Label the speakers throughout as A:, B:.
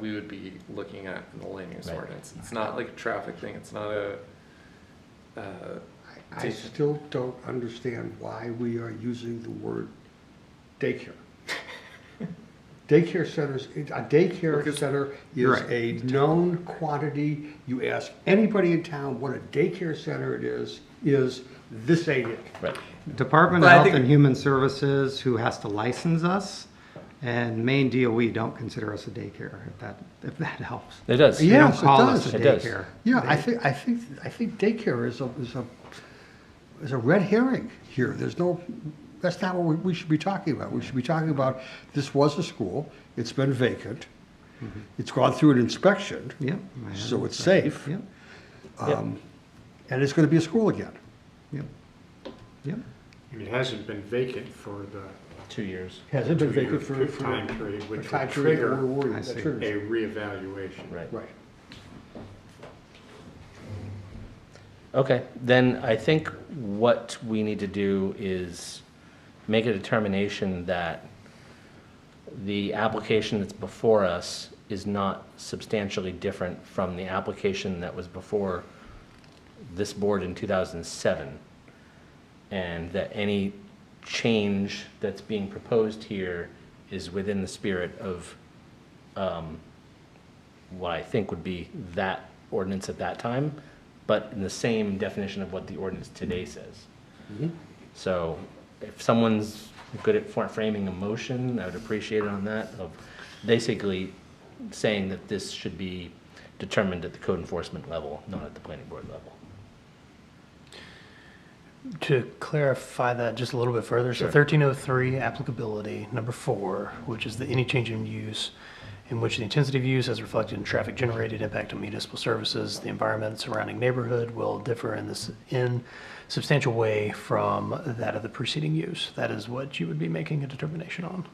A: we would be looking at in the land use
B: Right.
A: ordinance. It's not like a traffic thing, it's not a, uh,
C: I
A: Daycare.
C: still don't understand why we are using the word daycare. Daycare centers, a daycare
A: Because-
C: center is
A: Right.
C: a known quantity. You ask anybody in town what a daycare center it is, is this ain't it.
B: Right.
D: Department
A: But
D: of
A: I
D: Health
A: think-
D: and Human Services, who has to license us, and Maine DOE E don't consider us a daycare, if that, if that helps.
B: It does.
D: They don't
C: Yes, it
D: call us
C: does.
D: a
B: It does.
D: daycare.
C: Yeah, I think, I think, I think daycare is a, is a, is a red herring here. There's no, that's not what we, we should be talking about. We should be talking about, this was a school, it's been vacant,
D: Mm-hmm.
C: it's gone through an inspection,
D: Yep. I have
C: so
D: it.
C: it's safe,
D: Yep,
C: and it's gonna be a school again.
D: yep, yep.
E: And it hasn't been vacant for the
B: Two years.
C: Has it been
E: Two-year
C: vacant for, for?
E: time period,
C: a
E: which would
C: time period that
E: trigger-
C: we're worried
D: I
C: that
D: see.
C: triggers
E: a
C: it.
E: reevaluation.
B: Right.
C: Right.
B: Okay, then I think what we need to do is make a determination that the application that's before us is not substantially different from the application that was before this board in 2007. And that any change that's being proposed here is within the spirit of what I think would be that ordinance at that time, but in the same definition of what the ordinance today says. So if someone's good at for- framing a motion, I would appreciate it on that, of basically saying that this should be determined at the code enforcement level, not at the planning board level.
F: To clarify that just a little bit further, so
B: Sure.
F: thirteen oh three applicability, number four, which is the any change in use in which the intensity of use as reflected in traffic generated impact on municipal services, the environment surrounding neighborhood will differ in this in substantial way from that of the preceding use. That is what you would be making a determination on.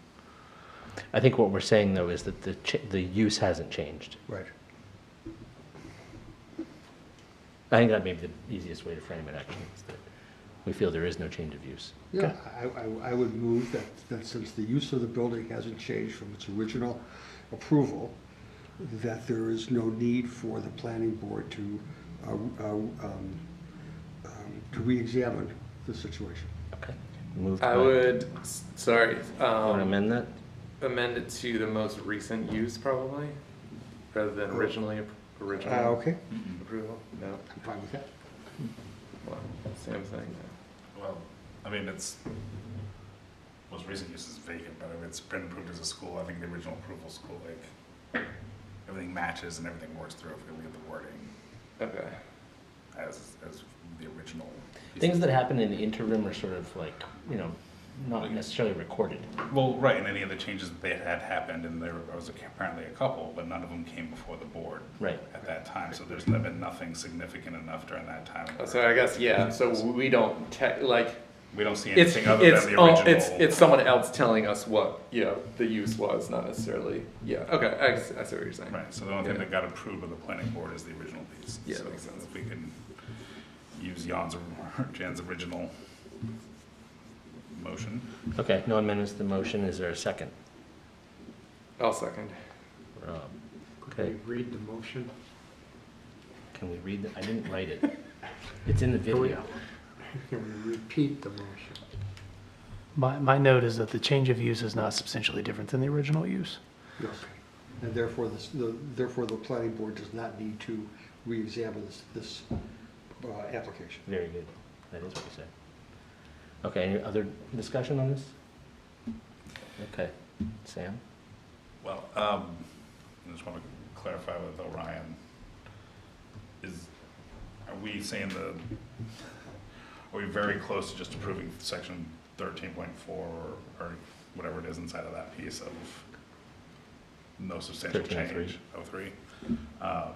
B: I think what we're saying, though, is that the, ch- the use hasn't changed.
C: Right.
B: I think that may be the easiest way to frame it, actually, is that we feel there is no change of use.
C: Yeah, I, I, I would move that, that since the use of the building hasn't changed from its original approval, that there is no need for the planning board to, uh, uh, um, um, to reexamine the situation.
B: Okay. Move.
A: I
B: by-
A: would, s- sorry,
B: Want to
A: um,
B: amend that?
A: amend it to the most recent use probably, rather than originally, ap-
C: Uh,
A: original
C: okay,
A: approval, no?
C: I'm fine with that.
A: Well, Same thing,
G: Well, I mean, it's, most recent use is vacant, but if it's been approved as a school, I think the original approval school, like, everything matches and everything works through if we leave the wording
A: okay.
G: as, as the original. piece.
B: Things that happen in the interim are sort of like, you know, not necessarily recorded.
G: Well, right, and any of the changes that they had happened, and there was apparently a couple, but none of them came before the board.
B: Right.
G: At that time, so there's been nothing significant enough during that time. where
A: uh, So I guess, yeah, so we don't tech, like,
G: We don't see
A: it's,
G: anything other
A: it's,
G: than the
A: oh, it's,
G: original.
A: it's someone else telling us what, you know, the use was, not necessarily, yeah, okay, I, s- I see what you're saying.
G: Right, so the only thing
A: Yeah.
G: that got approved by the planning board is the original piece.
A: Yeah,
G: So
A: that makes sense.
G: If we can use Jan's, or Jan's original motion.
B: Okay, no amendments to the motion. Is there a second?
A: I'll second.
B: Rob,
E: Could
B: okay,
E: we read the motion?
B: can we read that? I didn't write it. It's in the
E: we-
B: video.
E: Can we repeat the motion?
F: My, my note is that the change of use is not substantially different than the original use.
C: Yes. And therefore, this, the, therefore, the planning board does not need to reexamine this, this, uh, application.
B: Very good. That is what you said. Okay, any other discussion on this? Okay, Sam?
G: Well, um, I just want to clarify with Orion. Is, are we saying the, are we very close to just approving section thirteen point four or, or whatever it is inside of that piece of no substantial
B: 13.3.
G: change, oh three? Uh,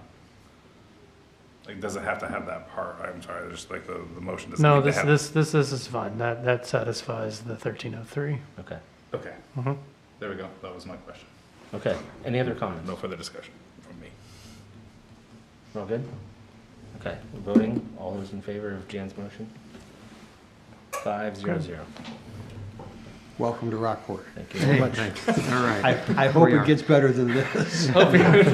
G: Like, does it have to have that part? I'm sorry, just like the, the motion doesn't
F: No,
G: need to
F: this,
G: have-
F: this, this, this is fine. That, that satisfies the thirteen oh three.
B: Okay,
G: Okay,
F: Mm-hmm.
G: there we go. That was my question.
B: okay. Any other comments?
G: No further discussion from me.
B: We're all good? Okay, we're voting. All those in favor of Jan's motion? Five, zero, zero.
D: Welcome to Rockport.
H: Thank you very much.
C: All right.
D: I hope
C: We
D: it
C: are.
D: gets better than this.